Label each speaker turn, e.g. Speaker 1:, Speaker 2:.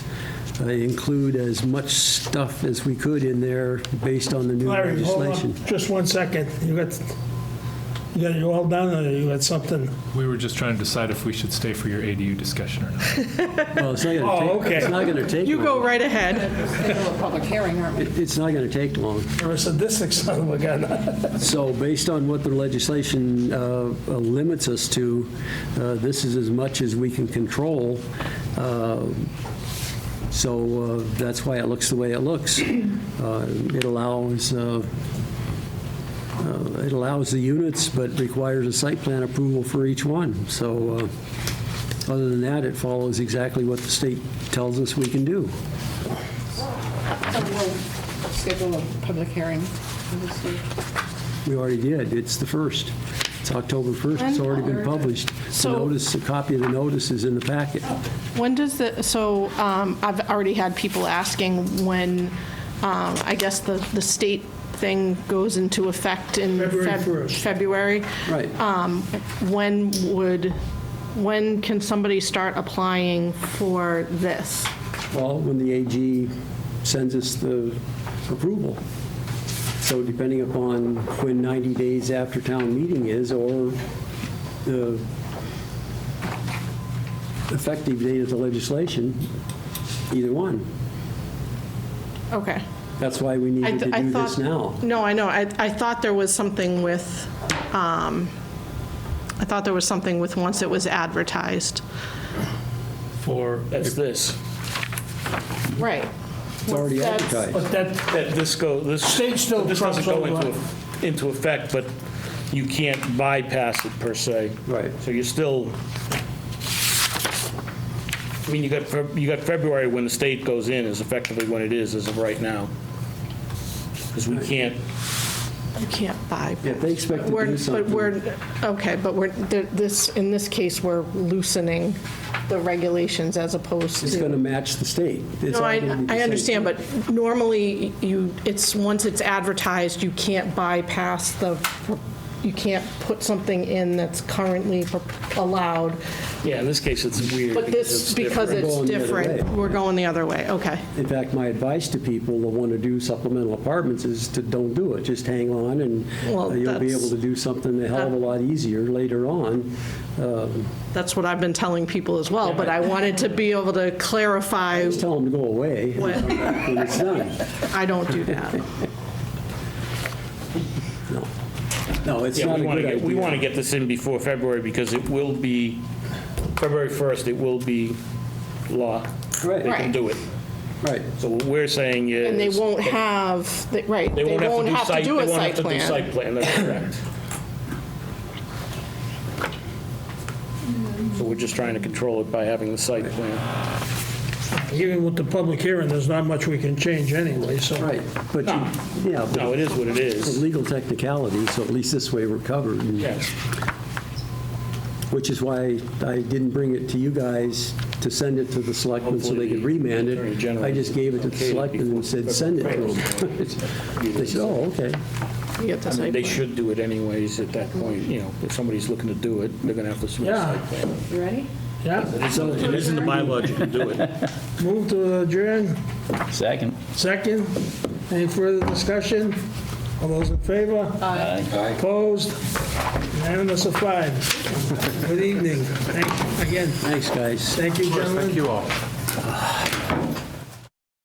Speaker 1: uh, include as much stuff as we could in there based on the new
Speaker 2: Larry, hold
Speaker 1: legislation.
Speaker 2: on, just one second. You got, you got it all done, or you got something?
Speaker 3: We were just trying to decide if we should stay for your ADU discussion or not.
Speaker 1: Well, it's not gonna
Speaker 2: Oh,
Speaker 1: take- It's
Speaker 2: okay.
Speaker 1: not going to take
Speaker 4: You
Speaker 1: long.
Speaker 4: go right ahead.
Speaker 5: schedule a public hearing, aren't we?
Speaker 1: It- It's not going to take long.
Speaker 2: You're a sadistic son of a gun.
Speaker 1: So based on what the legislation uh, uh, limits us to, uh, this is as much as we can control. Uh, So uh, that's why it looks the way it looks. Uh, It allows, uh, uh, it allows the units, but requires a site plan approval for each one. So uh, other than that, it follows exactly what the state tells us we can do.
Speaker 5: So we'll schedule a public hearing. for this week.
Speaker 1: We already did. It's the 1st. It's October 1st. It's already been published. The
Speaker 4: So-
Speaker 1: notice, a copy of the notice is in the packet.
Speaker 4: When does the, so um, I've already had people asking when, um, I guess the, the state thing goes into effect in
Speaker 2: February
Speaker 4: Feb-
Speaker 2: 1st.
Speaker 4: February.
Speaker 1: Right.
Speaker 4: Uh, When would, when can somebody start applying for this?
Speaker 1: Well, when the AG sends us the approval. So depending upon when 90 days after town meeting is, or the effective date of the legislation, either one.
Speaker 4: Okay.
Speaker 1: That's why we
Speaker 4: I
Speaker 1: needed to
Speaker 4: th- I
Speaker 1: do
Speaker 4: thought
Speaker 1: this now.
Speaker 4: No, I know. I, I thought there was something with, um, I thought there was something with once it was advertised.
Speaker 6: For, that's this,
Speaker 4: Right.
Speaker 1: It's already
Speaker 4: That's-
Speaker 1: advertised.
Speaker 2: But that,
Speaker 6: that this go, this.
Speaker 2: State still
Speaker 6: This doesn't
Speaker 2: trumps
Speaker 6: go
Speaker 2: all
Speaker 6: into,
Speaker 2: that.
Speaker 6: eff- into effect, but you can't bypass it per se.
Speaker 1: Right.
Speaker 6: So you're still, I mean, you got, Feb- you got February when the state goes in is effectively when it is as of right now. Because we can't,
Speaker 4: You can't buy.
Speaker 1: If they expect to
Speaker 4: We're-
Speaker 1: do something.
Speaker 4: But we're, okay, but we're, th- this, in this case, we're loosening the regulations as opposed to.
Speaker 1: It's going to match the state. It's
Speaker 4: No,
Speaker 1: all
Speaker 4: I,
Speaker 1: gonna be the
Speaker 4: I
Speaker 1: same.
Speaker 4: understand, but normally you, it's, once it's advertised, you can't bypass the, you can't put something in that's currently pro- allowed.
Speaker 6: yeah, in this case, it's weird.
Speaker 4: But this, because
Speaker 1: We're going
Speaker 4: it's
Speaker 6: different.
Speaker 1: the other
Speaker 4: different,
Speaker 1: way.
Speaker 4: we're going the other way, okay.
Speaker 1: In fact, my advice to people that want to do supplemental apartments is to don't do it. Just hang on, and
Speaker 4: Well,
Speaker 1: uh, you'll be
Speaker 4: that's-
Speaker 1: able to do something a hell of a lot easier later on. Uh,
Speaker 4: That's what I've been telling people as well, but I wanted to be able to clarify,
Speaker 1: Just tell them to go away
Speaker 4: What?
Speaker 1: when it's done.
Speaker 4: I don't do that.
Speaker 1: No, it's
Speaker 6: Yeah,
Speaker 1: not a
Speaker 6: we want
Speaker 1: good
Speaker 6: to get,
Speaker 1: idea.
Speaker 6: we want to get this in before February because it will be, February 1st, it will be law. They
Speaker 1: Right,
Speaker 6: can
Speaker 4: Right.
Speaker 6: do it.
Speaker 1: right.
Speaker 6: So what we're saying is.
Speaker 4: And they won't have, they- right,
Speaker 6: They won't have to do site, they
Speaker 4: a
Speaker 6: won't
Speaker 4: site
Speaker 6: have to do
Speaker 4: plan.
Speaker 6: site plan, that's correct. So we're just trying to control it by having the site plan.
Speaker 2: even with the public hearing, there's not much we can change anyway, so.
Speaker 1: Right, but, you- yeah, but
Speaker 6: No, it is what it
Speaker 1: it's a
Speaker 6: is.
Speaker 1: legal technicality, so at least this way we're covered, and-
Speaker 6: Yes.
Speaker 1: which is why I didn't bring it to you guys to send it to the selectmen so they could remand
Speaker 6: Hopefully the Attorney
Speaker 1: it.
Speaker 6: General
Speaker 1: I just gave it to the
Speaker 6: okayed it
Speaker 1: selectmen and said, send it to them. They said, oh, okay.
Speaker 4: You get the
Speaker 6: I mean,
Speaker 4: site
Speaker 6: They
Speaker 4: plan.
Speaker 6: should do it anyways at that point, you know, if somebody's looking to do it, they're going to have to submit a
Speaker 2: Yeah.
Speaker 6: site plan.
Speaker 5: You ready?
Speaker 2: Yeah,
Speaker 6: It isn't the bylaw you can do it.
Speaker 2: move to adjourn,
Speaker 7: Second.
Speaker 2: second. Any further discussion? All those in favor? Aye. Opposed? Unanimous of five. Good evening. Thank- Again,
Speaker 1: Thanks, guys.
Speaker 2: thank you, gentlemen.
Speaker 3: Thank you all.